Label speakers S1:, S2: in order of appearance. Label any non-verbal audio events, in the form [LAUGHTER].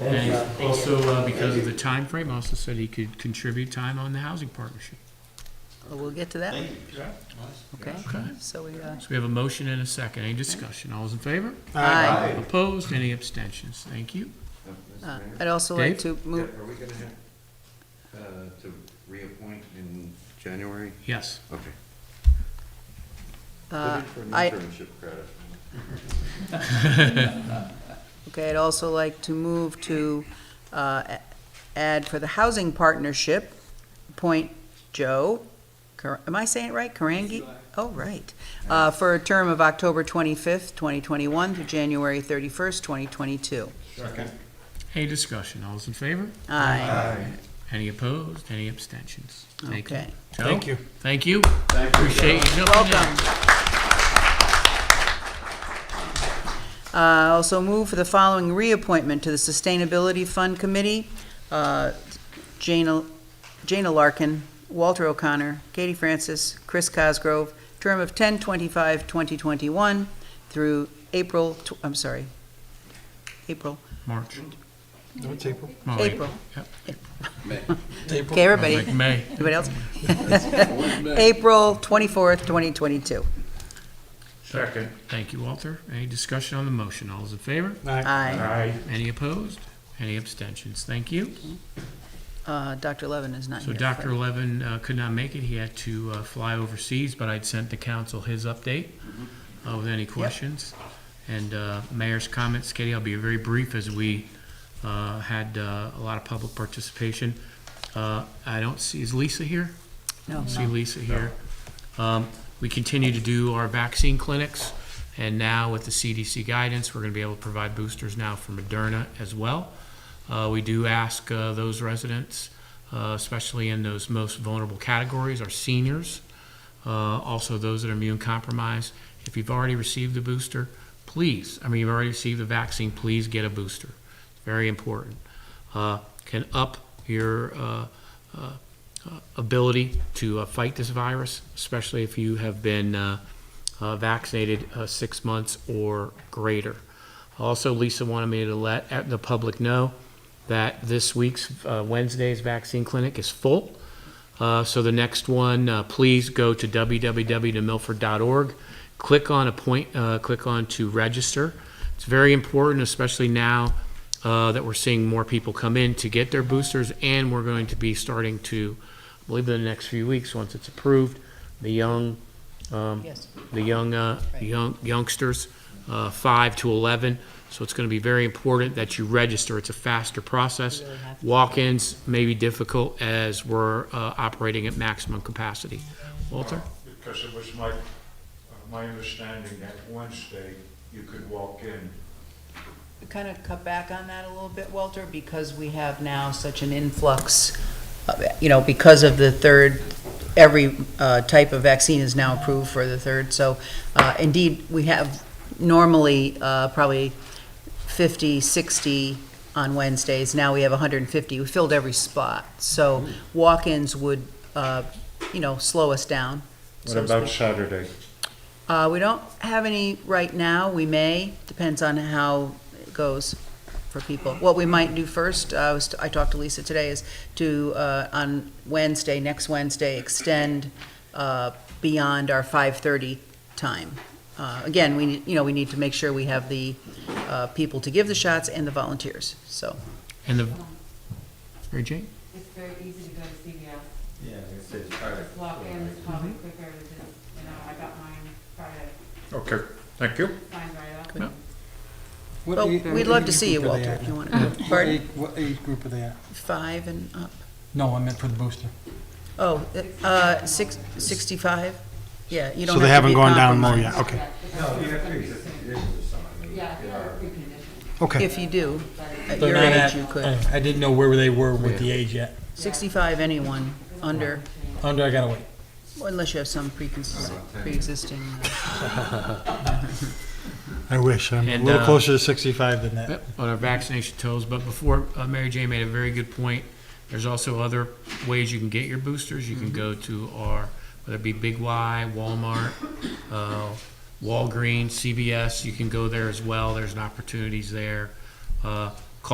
S1: And he
S2: Thank you.
S1: also, uh, because of the time frame, also said he could contribute time on the housing partnership.
S3: Well, We'll get to that,
S2: Thank you.
S3: okay?
S1: Okay.
S3: So we, uh,
S1: So we have a motion and a second. Any discussion? All those in favor?
S3: aye.
S2: Aye.
S1: Opposed? Any abstentions? Thank you.
S3: Uh, I'd also like to
S4: Yeah,
S3: move,
S4: Are we gonna have, uh, to reappoint in January?
S1: Yes.
S4: Okay.
S3: uh,
S4: Looking for an
S3: I,
S4: internship credit.
S3: okay, I'd also like to move to, uh, a- add for the housing partnership, appoint Joe, Kar- am I saying it right, Karangi? Oh, right, uh, for a term of October twenty-fifth, twenty twenty-one to January thirty-first, twenty twenty-two.
S1: Any discussion? All those in favor?
S3: Aye,
S1: Any opposed? Any abstentions? Thank you.
S3: okay,
S1: Joe? Thank you. Appreciate you jumping in.
S3: welcome. Uh, Also move for the following reappointment to the Sustainability Fund Committee, uh, Jana Jana Larkin, Walter O'Connor, Katie Francis, Chris Cosgrove, term of 10/25/2021 through April, tw- I'm sorry, April,
S1: March.
S5: No, it's April.
S1: Oh, wait.
S3: April.
S1: Yep.
S3: [LAUGHS]
S5: It's
S1: I was
S5: April.
S3: Okay,
S1: like,
S3: everybody,
S1: May.
S3: everybody else? April 24th, 2022.
S1: Second. Thank you, Walter. Any discussion on the motion? All those in favor?
S3: Aye.
S1: Aye. Any opposed? Any abstentions? Thank you.
S3: Uh, Dr. Levin is not
S1: So
S3: here.
S1: Dr. Levin uh, could not make it. He had to uh, fly overseas, but I'd sent the council his update uh, with any questions. And uh, mayor's comments, Katie, I'll be very brief as we uh, had uh, a lot of public participation. Uh, I don't see, is Lisa here?
S3: No,
S1: see Lisa here. Um, We continue to do our vaccine clinics, and now with the CDC guidance, we're gonna be able to provide boosters now for Moderna as well. Uh, We do ask uh, those residents, uh, especially in those most vulnerable categories, our seniors, uh, also those that are immune compromised, if you've already received the booster, please, I mean, you've already received the vaccine, please get a booster. It's Very important. Uh, Can up your uh, uh, uh, ability to uh, fight this virus, especially if you have been uh, uh, vaccinated uh, six months or greater. Also, Lisa wanted me to let uh, the public know that this week's uh, Wednesday's vaccine clinic is full. Uh, So the next one, uh, please go to www.milford.org, click on appoint, uh, click on to register. It's very important, especially now uh, that we're seeing more people come in to get their boosters, and we're going to be starting to, I believe in the next few weeks, once it's approved, the young, um,
S3: Yes.
S1: the young, uh,
S3: Right.
S1: young youngsters, uh, five to 11. So it's going to be very important that you register. It's a faster process. Walk-ins may be difficult as we're uh, operating at maximum capacity. Walter?
S6: Because it was my, uh, my understanding that Wednesday you could walk in.
S3: We kind of cut back on that a little bit, Walter, because we have now such an influx, of- you know, because of the third, every uh, type of vaccine is now approved for the third. So uh, indeed, we have normally uh, probably 50, 60 on Wednesdays. Now we have 150. We filled every spot. So walk-ins would, uh, you know, slow us down.
S6: What
S3: so to
S6: about
S3: speak.
S6: Saturday?
S3: Uh, We don't have any right now. We may, depends on how it goes for people. What we might do first, uh, I was- I talked to Lisa today, is to, uh, on Wednesday, next Wednesday, extend uh, beyond our 5:30 time. Uh, Again, we, need- you know, we need to make sure we have the uh, people to give the shots and the volunteers, so.
S1: And the, Mary Jane?
S7: It's very easy to go to CVS,
S2: Yeah, it's, it's,
S7: just walk in, it's probably quicker to just, you know, I got mine Friday,
S6: Okay, thank you.
S7: signed right up.
S1: Yeah.
S3: Well, we'd love to see you, Walter, if you want [LAUGHS] to.
S5: What
S3: Pardon?
S5: age, what age group are they at?
S3: Five and up.
S5: No, I meant for the booster.
S3: Oh, uh, six- 65? Yeah, you don't have to be.
S8: So they haven't gone down low
S3: compromised.
S8: yet, okay.
S4: No, you have to accept the conditions of something.
S7: Yeah, if you have a precondition,
S8: Okay,
S3: If you do, at
S5: They're
S3: your
S5: not
S3: age,
S5: at-
S3: you could.
S5: I- I didn't know where they were
S8: Oh,
S5: with the age yet.
S3: 65, anyone, under,
S5: Under, I gotta wait.
S3: unless you have some preconce- pre-existing. uh,
S8: I wish, I'm a
S1: And,
S8: little
S1: uh,
S8: closer to 65 than that.
S1: Yep, on our vaccination totals, but before, uh, Mary Jane made a very good point. There's also other ways you can get your boosters. You can go to our, whether it be Big Y, Walmart, uh, Walgreens, CVS, you can go there as well. There's an opportunities there. Uh,